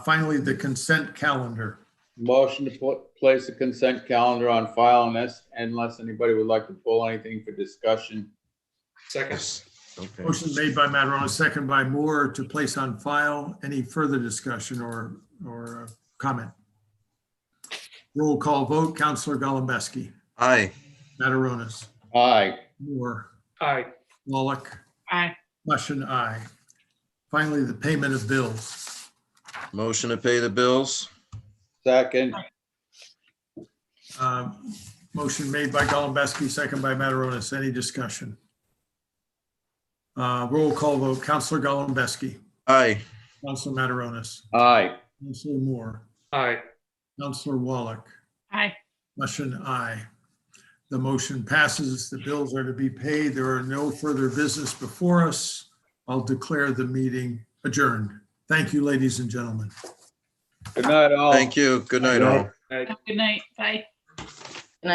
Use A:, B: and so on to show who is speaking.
A: Finally, the consent calendar.
B: Motion to put, place a consent calendar on file unless, unless anybody would like to pull anything for discussion.
C: Second.
D: Okay,
A: Motion made by Mataronis, second by Moore to place on file. Any further discussion or, or uh, comment? Roll call vote, Counselor Golembeski,
D: aye,
A: Mataronis,
B: Aye,
A: Moore,
C: Aye.
A: Wallach,
E: Aye.
A: Mushin, aye. Finally, the payment of bills.
D: motion to pay the bills,
B: second,
A: Um, Motion made by Golembeski, second by Mataronis. Any discussion? Uh, Roll call vote, Counselor Golembeski,
D: aye,
A: Counselor Mataronis,
B: aye,
A: Counselor Moore,
C: Aye.
A: Counselor Wallach,
E: Aye.
A: Motion aye. The motion passes. The bills are to be paid. There are no further business before us. I'll declare the meeting adjourned. Thank you, ladies and gentlemen.
B: good night all.
D: thank you, good night all.
E: Good night. Bye.